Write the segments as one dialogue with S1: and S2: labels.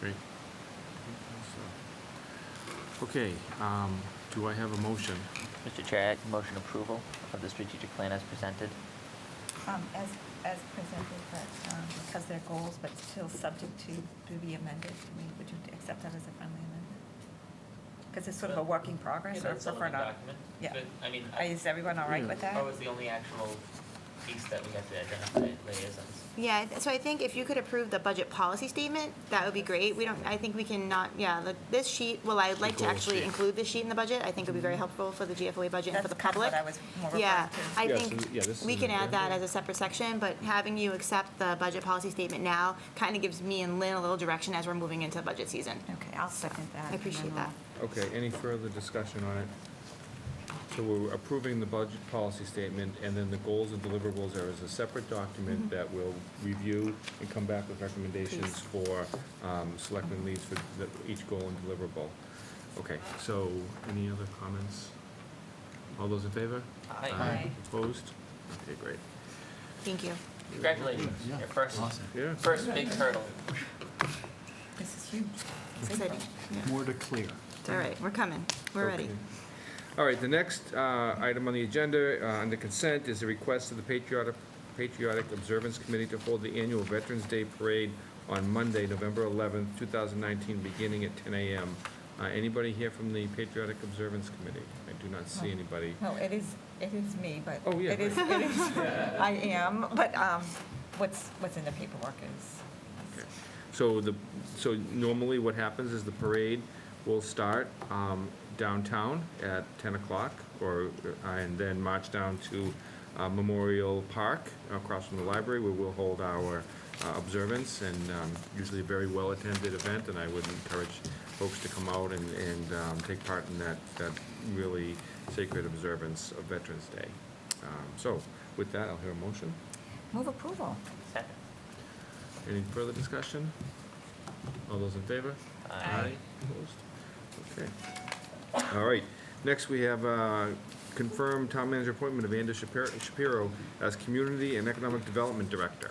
S1: Great. Okay, um, do I have a motion?
S2: Mr. Chair, I act motion approval of the strategic plan as presented.
S3: Um, As, as presented, but um, because they're goals, but still subject to, to be amended, I mean, would you accept that as a friendly amendment? Because it's sort of a work in progress,
S4: Yeah,
S3: or
S4: that's all in
S3: prefer
S4: the
S3: not?
S4: document,
S3: Yeah.
S4: But, I mean,
S3: Uh, Is everyone all
S5: Hmm.
S3: right
S1: Yeah.
S3: with that?
S4: that was the only actual piece that we had to identify liaisons.
S6: Yeah, I th- so I think if you could approve the budget policy statement, that would be great. We don't, I think we can not, yeah, the- this sheet, well, I'd like to
S1: goal
S6: actually
S1: sheet.
S6: include this sheet in the budget. I think it would be very helpful for the GFOA budget and for
S3: That's
S6: the
S3: kind of
S6: public.
S3: what I was more referring to.
S6: Yeah, I
S5: Yeah, so, yeah,
S6: think
S5: this
S6: we
S5: is
S6: can
S5: in
S6: add
S5: there.
S6: that as a separate section, but having you accept the budget policy statement now kind of gives me and Lynn a little direction as we're moving into budget season.
S3: Okay, I'll second that.
S6: I appreciate
S3: and then
S6: that.
S5: Okay, any further discussion on it? So we're approving the budget policy statement, and then the goals and deliverables are as a separate document that we'll review and come back with recommendations for um, selectmen leads for the- each goal and deliverable. Okay, so any other comments? All those in favor?
S4: Aye.
S3: Aye.
S5: Opposed? Okay, great.
S6: Thank you.
S4: Congratulations, your first,
S5: Yeah.
S4: first big hurdle.
S3: we'll- This is huge.
S6: Exciting. Yeah.
S7: More to clear.
S6: All right, we're coming. We're ready.
S5: Okay. All right, the next uh, item on the agenda, uh, under consent, is a request of the Patriotic Patriotic Observance Committee to hold the annual Veterans Day Parade on Monday, November 11th, 2019, beginning at 10 a.m. Uh, Anybody here from the Patriotic Observance Committee? I do not see anybody.
S3: No, it is, it is me, but.
S5: Oh, yeah,
S3: It is, it is, I am, but um, what's, what's in the paperwork is,
S5: So the, so normally what happens is the parade will start um, downtown at 10 o'clock, or, uh, and then march down to uh, Memorial Park across from the library, where we'll hold our uh, observance, and um, usually a very well-attended event, and I would encourage folks to come out and, and um, take part in that, that really sacred observance of Veterans Day. Um, So with that, I'll hear a motion.
S3: move approval.
S4: Second.
S5: Any further discussion? All those in favor?
S4: Aye.
S5: Opposed? Okay. All right. Next, we have uh, confirmed town manager appointment of Andrew Shapiro- Shapiro as Community and Economic Development Director.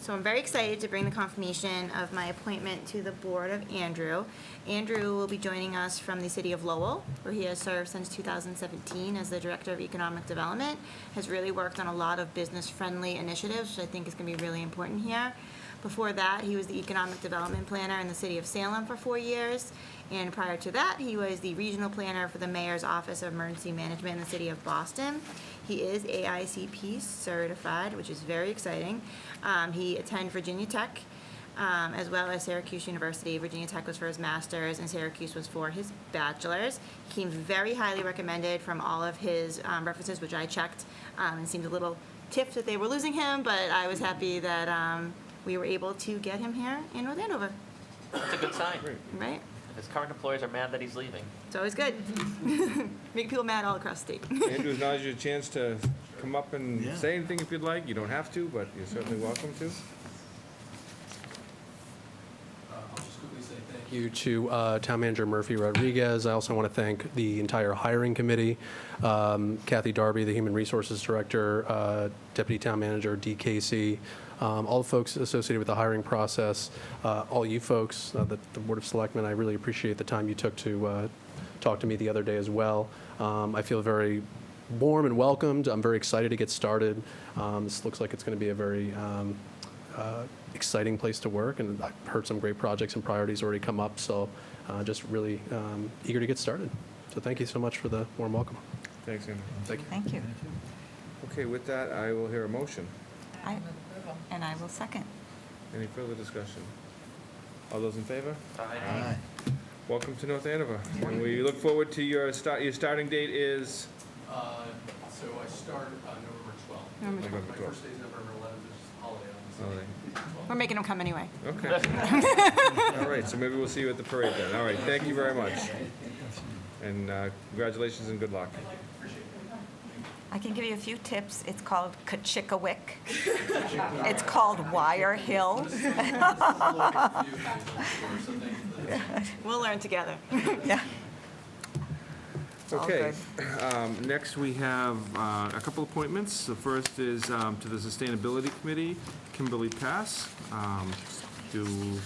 S6: So I'm very excited to bring the confirmation of my appointment to the board of Andrew. Andrew will be joining us from the city of Lowell, where he has served since 2017 as the Director of Economic Development, has really worked on a lot of business-friendly initiatives, which I think is going to be really important here. Before that, he was the Economic Development Planner in the city of Salem for four years, and prior to that, he was the Regional Planner for the Mayor's Office of Emergency Management in the city of Boston. He is AICP certified, which is very exciting. Um, he attended Virginia Tech, um, as well as Syracuse University. Virginia Tech was for his master's, and Syracuse was for his bachelor's. He came very highly recommended from all of his um, references, which I checked, um, and seemed a little tiffed that they were losing him, but I was happy that um, we were able to get him here in North Andover,
S4: That's a good sign.
S6: right?
S4: His current employers are mad that he's leaving.
S6: It's always good. Make people mad all across the state.
S5: Andrew, now's your chance to come up and
S7: Yeah.
S5: say anything if you'd like. You don't have to, but you're certainly welcome to.
S8: Uh, I'll just quickly say thank you to uh, Town Manager Murphy Rodriguez. I also want to thank the entire hiring committee, um, Kathy Darby, the Human Resources Director, uh, Deputy Town Manager D. Casey, um, all the folks associated with the hiring process, uh, all you folks, uh, the the Board of Selectmen. I really appreciate the time you took to uh, talk to me the other day as well. Um, I feel very warm and welcomed. I'm very excited to get started. Um, This looks like it's going to be a very um, uh, exciting place to work, and I've heard some great projects and priorities already come up, so uh, just really um, eager to get started. So thank you so much for the warm welcome.
S5: Thanks, Andrew.
S3: Thank you.
S5: Okay, with that, I will hear a motion.
S3: I- And I will second.
S5: Any further discussion? All those in favor?
S7: Aye.
S5: Welcome to North Andover. And we look forward to your start, your starting date is?
S8: Uh, So I start on November 12th.
S6: November
S5: November Oh, 12th.
S8: My first day is November 11th, which is a holiday
S5: Holiday.
S8: on
S6: We're making them come anyway.
S5: Okay. All right, so maybe we'll see you at the parade then. All right, thank you very much. And uh, congratulations and good luck.
S3: I can give you a few tips. It's called Kachikawick. It's called Wire Hill.
S8: the 12th. So thank you for that.
S6: We'll learn together.
S3: All
S5: Okay,
S3: good.
S5: um, next we have uh, a couple appointments. The first is um, to the Sustainability Committee, Kimberly Pass. Um, Do